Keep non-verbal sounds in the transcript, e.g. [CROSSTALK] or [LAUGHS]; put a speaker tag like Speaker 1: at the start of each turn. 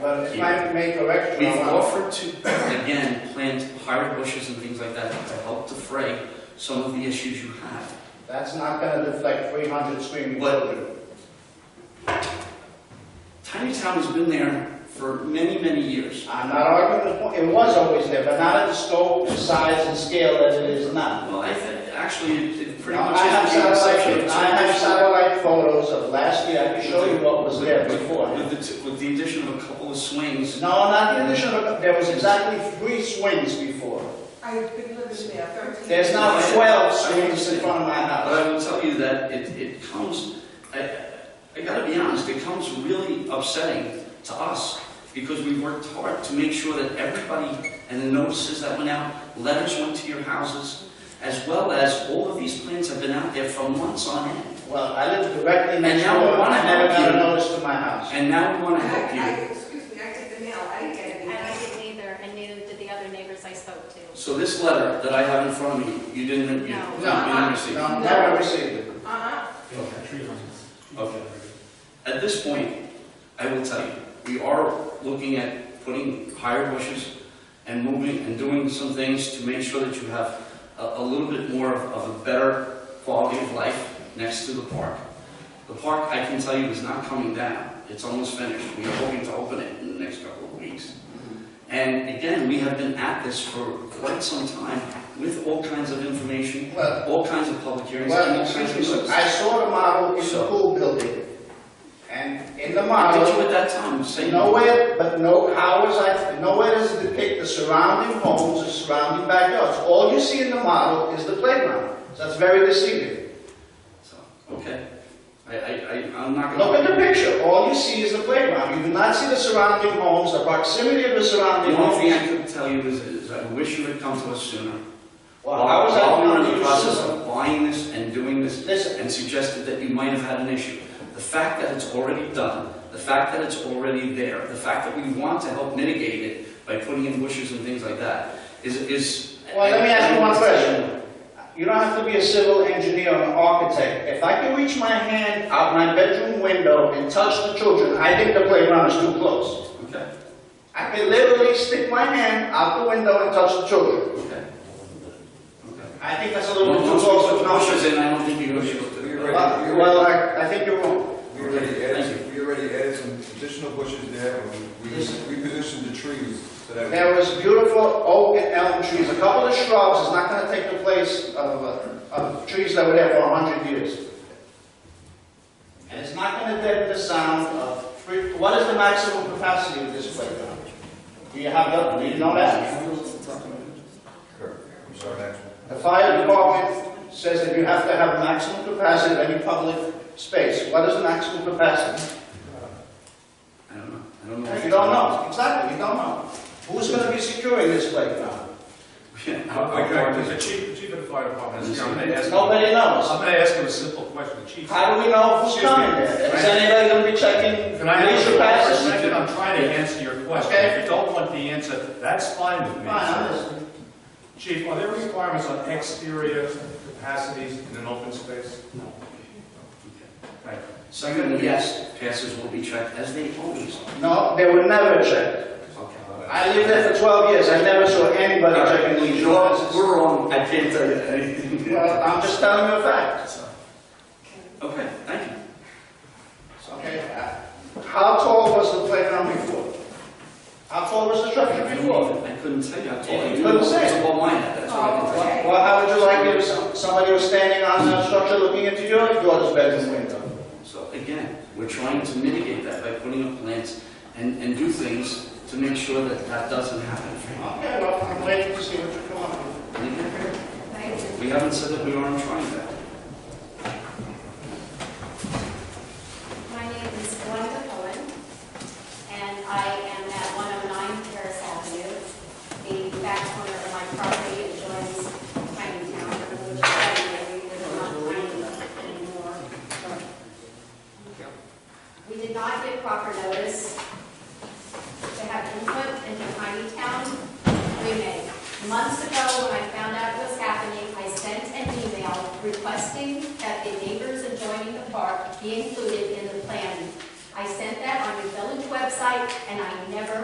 Speaker 1: But if I make correction,
Speaker 2: We've
Speaker 1: I'll-
Speaker 2: offered to, again, plant higher bushes and things like that to help defray some of the issues you have.
Speaker 1: that's not gonna deflect three hundred screaming
Speaker 2: What?
Speaker 1: children.
Speaker 2: Tiny Town has been there for many, many years.
Speaker 1: I'm not arguing, the point. it was always there, but not at the scope, size, and scale that it is now.
Speaker 2: Well, I think, actually, it- it pretty
Speaker 1: Now,
Speaker 2: much
Speaker 1: I have
Speaker 2: is the
Speaker 1: satellite,
Speaker 2: exception.
Speaker 1: I have satellite photos of last year, I can show you what was there
Speaker 2: With-
Speaker 1: before.
Speaker 2: With the, t- with the addition of a couple of swings,
Speaker 1: No, not the addition of, there was exactly three swings before.
Speaker 3: I've been living there 13 years.
Speaker 1: There's now twelve swings in front of my
Speaker 2: But
Speaker 1: house.
Speaker 2: I will tell you that it, it comes, I, I gotta be honest, it comes really upsetting to us because we worked hard to make sure that everybody, and the notices that went out, letters went to your houses, as well as all of these plans have been out there for months on end.
Speaker 1: Well, I live directly next
Speaker 2: now
Speaker 1: door,
Speaker 2: we wanna
Speaker 1: I never got
Speaker 2: help
Speaker 1: a
Speaker 2: you.
Speaker 1: notice to my house.
Speaker 2: And now we wanna help
Speaker 3: I,
Speaker 2: you.
Speaker 3: I- excuse me, I did the mail, I didn't get
Speaker 4: And I
Speaker 3: any.
Speaker 4: didn't either, and neither did the other neighbors I spoke to.
Speaker 2: So this letter that I have in front of me, you didn't, you, you
Speaker 4: No.
Speaker 2: didn't receive?
Speaker 1: No, never received it.
Speaker 3: Uh-huh,
Speaker 2: Okay. At this point, I will tell you, we are looking at putting higher bushes and moving and doing some things to make sure that you have a, a little bit more of, of a better quality of life next to the park. The park, I can tell you, is not coming down. It's almost finished. We are hoping to open it in the next couple of weeks. And again, we have been at this for quite some time with all kinds of information,
Speaker 1: Well-
Speaker 2: all kinds of public hearings, and
Speaker 1: Well,
Speaker 2: all kinds
Speaker 1: excuse
Speaker 2: of
Speaker 1: me, sir, I
Speaker 2: notices.
Speaker 1: saw the model in the
Speaker 2: So-
Speaker 1: pool building, and in the
Speaker 2: How did
Speaker 1: model,
Speaker 2: you at that time say no?
Speaker 1: nowhere, but no, how is that, nowhere does it depict the surrounding homes, the surrounding backyards. All you see in the model is the playground, so that's very deceiving.
Speaker 2: So, okay. I, I, I, I'm not
Speaker 1: Look
Speaker 2: gonna.
Speaker 1: at the picture, all you see is the playground, you do not see the surrounding homes, the proximity of the surrounding
Speaker 2: The only thing
Speaker 1: homes.
Speaker 2: I could tell you is, is I wish you had come to us sooner.
Speaker 1: Well, how is that
Speaker 2: While we were in the
Speaker 1: not
Speaker 2: process
Speaker 1: used?
Speaker 2: of buying this and doing this
Speaker 1: Listen,
Speaker 2: and suggested that you might have had an issue. The fact that it's already done, the fact that it's already there, the fact that we want to help mitigate it by putting in bushes and things like that is, is.
Speaker 1: Well, let me ask you one question. You don't have to be a civil engineer or an architect. If I can reach my hand out my bedroom window and touch the children, I think the playground is too close.
Speaker 2: Okay,
Speaker 1: I can literally stick my hand out the window and touch the children.
Speaker 2: okay. Okay.
Speaker 1: I think that's a little bit too
Speaker 2: Once we
Speaker 1: close
Speaker 2: put
Speaker 1: for
Speaker 2: the
Speaker 1: numbers.
Speaker 2: bushes in, I don't think you're gonna be able to.
Speaker 1: Well, well, I, I think you're wrong.
Speaker 5: We already
Speaker 2: Thank
Speaker 5: added, we already added some additional bushes there, and we,
Speaker 1: Yes.
Speaker 5: we positioned the trees so that.
Speaker 1: There was beautiful oak and elm trees, a couple of shrubs is not gonna take the place of, uh, of trees that were there for hundred years. And it's not gonna deaden the sound of, three- what is the maximum capacity of this playground? Do you have that, do you know that?
Speaker 5: I'm sorry, that's-
Speaker 1: The fire department says that you have to have maximum capacity of any public space. What is the maximum capacity?
Speaker 2: I don't know, I don't know.
Speaker 1: You don't know, exactly, you don't know. Who's gonna be securing this playground?
Speaker 2: [LAUGHS]
Speaker 6: Okay, The chief, the chief of the fire department is coming to ask.
Speaker 1: Nobody knows.
Speaker 6: I'm gonna ask him a simple question, the chief.
Speaker 1: How do we know who's coming there? Is anybody gonna be checking
Speaker 6: Can I ask you
Speaker 1: leisure
Speaker 6: a
Speaker 1: passes?
Speaker 6: question? I'm trying to answer your question.
Speaker 1: Okay.
Speaker 6: If you don't want the answer, that's fine with
Speaker 1: Fine,
Speaker 6: me.
Speaker 1: I'm
Speaker 6: sir.
Speaker 1: listening.
Speaker 6: Chief, are there requirements on exterior capacities in an open space? No. Thank you.
Speaker 2: Secondly, yes, passes will be checked as they always are.
Speaker 1: No, they were never checked.
Speaker 2: Okay.
Speaker 1: I lived there for 12 years, I never saw anybody checking leisure passes.
Speaker 2: We're wrong, I can't tell you anything.
Speaker 1: Well, I'm just telling you a fact,
Speaker 2: [LAUGHS] Okay, thank you.
Speaker 1: okay? How tall was the playground before? How tall was the structure
Speaker 2: I
Speaker 1: before?
Speaker 2: couldn't- I couldn't tell you, I told you.
Speaker 1: You couldn't say.
Speaker 2: It's above my head, that's what I can tell you.
Speaker 3: okay.
Speaker 1: Well, how would you like it if some- somebody was standing on that structure looking into your daughter's bedroom window?
Speaker 2: So again, we're trying to mitigate that by putting up plants and, and do things to make sure that that doesn't happen.
Speaker 1: Okay, well, I'm waiting to see what you come up with.
Speaker 3: thank you.
Speaker 2: We haven't said that we aren't trying that.
Speaker 4: My name is Glenda Cohen, and I am at 109 Terrace Avenue. The back corner of my property adjoins Tiny Town, which is not tiny anymore. We did not get proper notice to have input into Tiny Town remake. Months ago, when I found out what was happening, I sent an email requesting that the neighbors adjoining the park be included in the plan. I sent that on the village website, and I never